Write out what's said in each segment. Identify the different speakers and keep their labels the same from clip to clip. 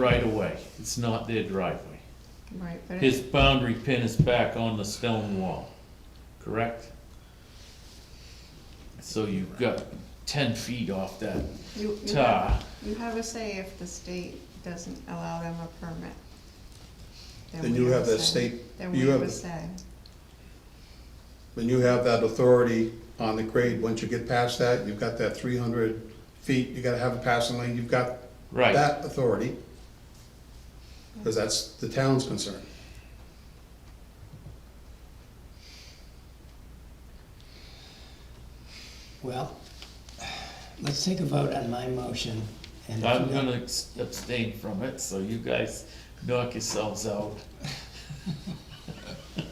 Speaker 1: right of way, it's not their driveway.
Speaker 2: Right, but
Speaker 1: His
Speaker 2: it,
Speaker 1: boundary pin is back on the stone wall, correct? So you've got ten feet off that
Speaker 2: you, you
Speaker 1: tar.
Speaker 2: have, you have a say if the state doesn't allow them a permit.
Speaker 3: Then
Speaker 2: we
Speaker 3: you have
Speaker 2: a
Speaker 3: the
Speaker 2: say.
Speaker 3: state-
Speaker 2: Then
Speaker 3: you
Speaker 2: we
Speaker 3: have
Speaker 2: would
Speaker 3: the-
Speaker 2: say,
Speaker 3: Then you have that authority on the grade, once you get past that, you've got that three hundred feet, you gotta have a passing lane, you've got
Speaker 1: Right,
Speaker 3: that authority. Cause that's the town's concern.
Speaker 4: Well, let's take a vote on my motion. and if
Speaker 1: I'm
Speaker 4: we-
Speaker 1: gonna abs- abstain from it, so you guys knock yourselves out.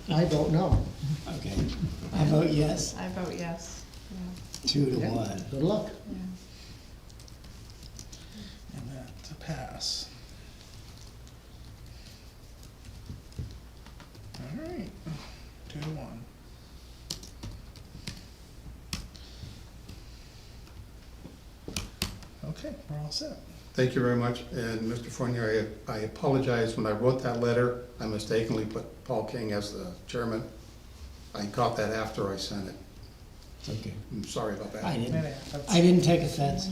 Speaker 5: I don't know.
Speaker 4: Okay, I vote yes,
Speaker 2: I vote yes, yeah,
Speaker 4: two to one.
Speaker 5: Good luck.
Speaker 2: yeah.
Speaker 6: And that's a pass. All right, two to one. Okay, we're all set.
Speaker 3: Thank you very much, and Mr. Fournier, I, I apologize, when I wrote that letter, I mistakenly put Paul King as the chairman. I caught that after I sent it,
Speaker 4: It's okay.
Speaker 3: I'm sorry about that.
Speaker 4: I didn't,
Speaker 6: Minute, that's-
Speaker 4: I didn't take offense.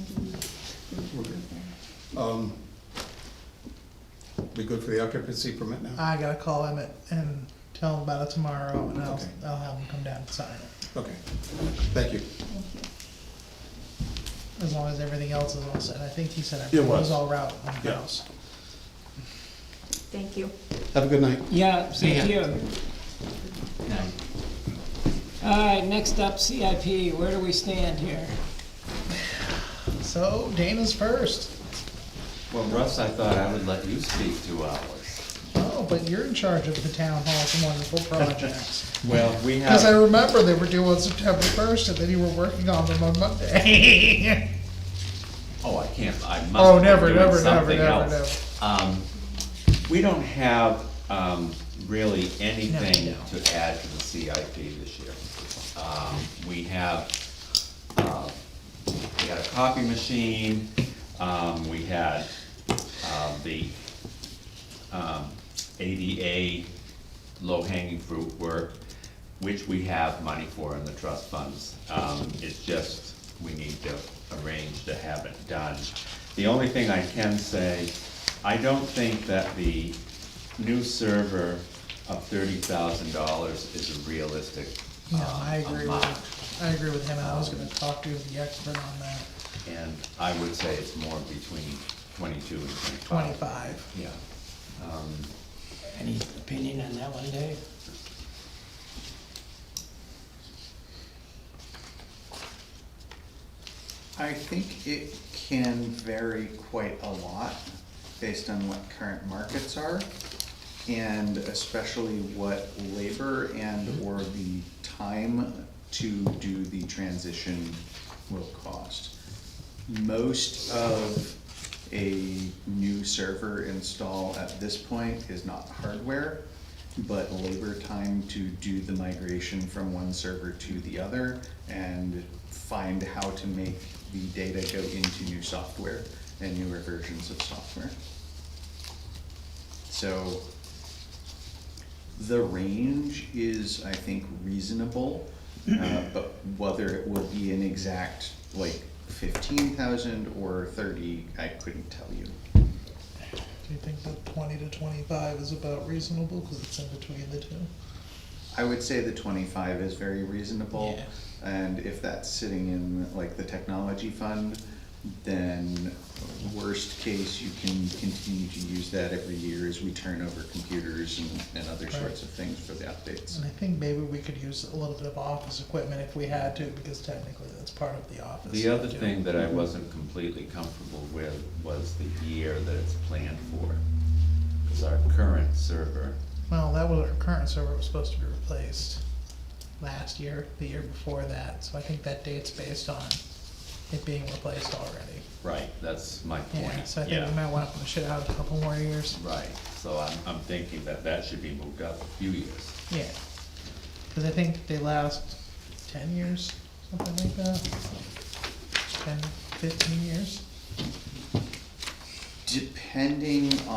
Speaker 3: We're good. Um, We good for the occupancy permit now?
Speaker 6: I gotta call Emmett and tell him about it tomorrow, and I'll,
Speaker 3: Okay.
Speaker 6: I'll have him come down and sign it,
Speaker 3: Okay, thank you.
Speaker 6: as long as everything else is all set. I think he said
Speaker 3: It
Speaker 6: everything
Speaker 3: was.
Speaker 6: was all right on the
Speaker 3: Yeah.
Speaker 6: house.
Speaker 2: Thank you.
Speaker 3: Have a good night.
Speaker 4: Yeah,
Speaker 1: See
Speaker 4: thank you. All right, next up, CIP, where do we stand here?
Speaker 6: So Dana's first.
Speaker 7: Well, Russ, I thought I would let you speak two hours.
Speaker 6: Oh, but you're in charge of the town hall for wonderful projects.
Speaker 7: Well, we
Speaker 6: Because I remember they were due on September first, and then you were working on them on Monday.
Speaker 7: Oh, I can't, I must.
Speaker 6: Oh,
Speaker 7: be
Speaker 6: never,
Speaker 7: doing
Speaker 6: never, never,
Speaker 7: something
Speaker 6: never, never.
Speaker 7: else. Um, we don't have, um, really anything
Speaker 6: No.
Speaker 7: to add to the CIP this year. Um, we have, uh, we had a copy machine, um, we had, uh, the, um, ADA low-hanging fruit work, which we have money for in the trust funds. Um, it's just, we need to arrange to have it done. The only thing I can say, I don't think that the new server of thirty thousand dollars is a realistic, um,
Speaker 6: No, I agree
Speaker 7: amount.
Speaker 6: with, I agree with him, and I was gonna talk to the expert on that,
Speaker 7: And I would say it's more between twenty-two and twenty-five.
Speaker 6: twenty-five.
Speaker 7: Yeah. Um,
Speaker 4: Any opinion on that one, Dave?
Speaker 8: I think it can vary quite a lot based on what current markets are and especially what labor and or the time to do the transition will cost. Most of a new server install at this point is not hardware, but labor time to do the migration from one server to the other and find how to make the data go into new software and newer versions of software. So the range is, I think, reasonable, uh, but whether it will be an exact, like, fifteen thousand or thirty, I couldn't tell you.
Speaker 6: Do you think that twenty to twenty-five is about reasonable, because it's in between the two?
Speaker 8: I would say the twenty-five is very reasonable, and if that's sitting in, like, the technology fund, then worst case, you can continue to use that every year as we turn over computers and, and other sorts of things for the updates.
Speaker 6: And I think maybe we could use a little bit of office equipment if we had to, because technically that's part of the office.
Speaker 7: The other thing that I wasn't completely comfortable with was the year that it's planned for. Cause our current server,
Speaker 6: Well, that was, our current server was supposed to be replaced last year, the year before that, so I think that date's based on it being replaced already.
Speaker 7: right, that's my
Speaker 6: Yeah,
Speaker 7: point,
Speaker 6: so I think we
Speaker 7: yeah.
Speaker 6: might wanna push it out a couple more years,
Speaker 7: Right, so I'm, I'm thinking that that should be moved up a few years.
Speaker 6: yeah. Cause I think they last ten years, something like that. Ten, fifteen years.
Speaker 8: depending